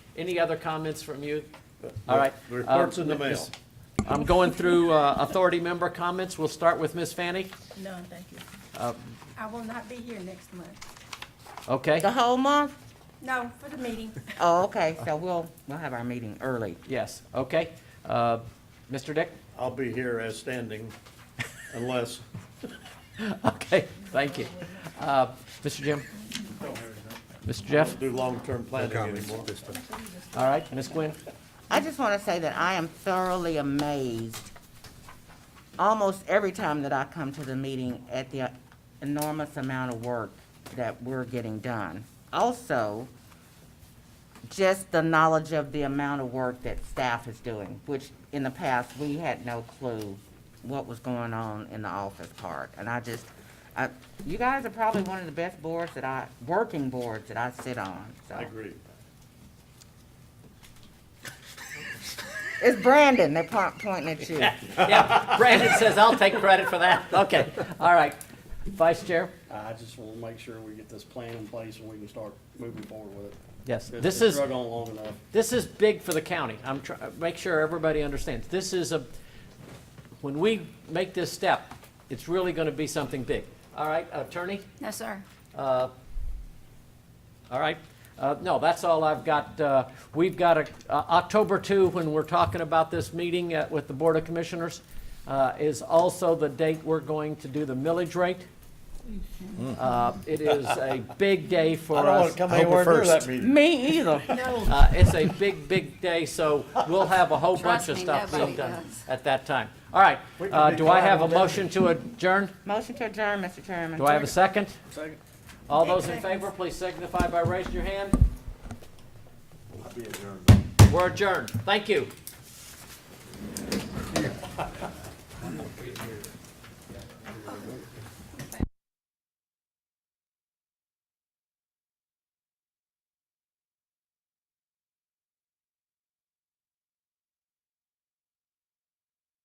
Any other comments from you? All right. The report's in the Um, mail. I'm going through uh, authority member comments. We'll start with Ms. Fanning. None, thank you. I will not be here next month. Okay, The whole month? No, for the meeting. Oh, okay, so we'll, we'll have our meeting early. yes, okay. Uh, Mr. Dick? I'll be here as standing unless, Okay, thank you. Uh, Mr. Jim? Mr. Jeff? do long-term planning anymore. All right, Ms. Gwen? I just want to say that I am thoroughly amazed almost every time that I come to the meeting at the enormous amount of work that we're getting done. Also, just the knowledge of the amount of work that staff is doing, which in the past, we had no clue what was going on in the office part. And I just, I, you guys are probably one of the best boards that I, working boards that I sit on, so. I agree. It's Brandon, they're po- pointing at you. Yeah, Brandon says I'll take credit for that. Okay, all right. Vice Chair? I just want to make sure we get this plan in place and we can start moving forward with it. Yes, It's this been is, Drug on long enough. this is big for the county. I'm try, make sure everybody understands. This is a, when we make this step, it's really gonna be something big. All right, attorney? No, sir. Uh, All right, Uh, no, that's all I've got. Uh, We've got a- uh, October 2, when we're talking about this meeting uh, with the Board of Commissioners, uh, is also the date we're going to do the millage rate. Uh, It is a big day for I us. don't want to come anywhere near that meeting. Me either. No, Uh, It's a big, big day, so we'll have a whole bunch Trust of me, stuff being nobody done does. at that time. All right, We can uh, be do I quiet have a all day. motion to adjourn? Motion to adjourn, Mr. Chairman. Do I have a second? Second. All those in favor, please signify by raising your hand. Be adjourned. We're adjourned. Thank you.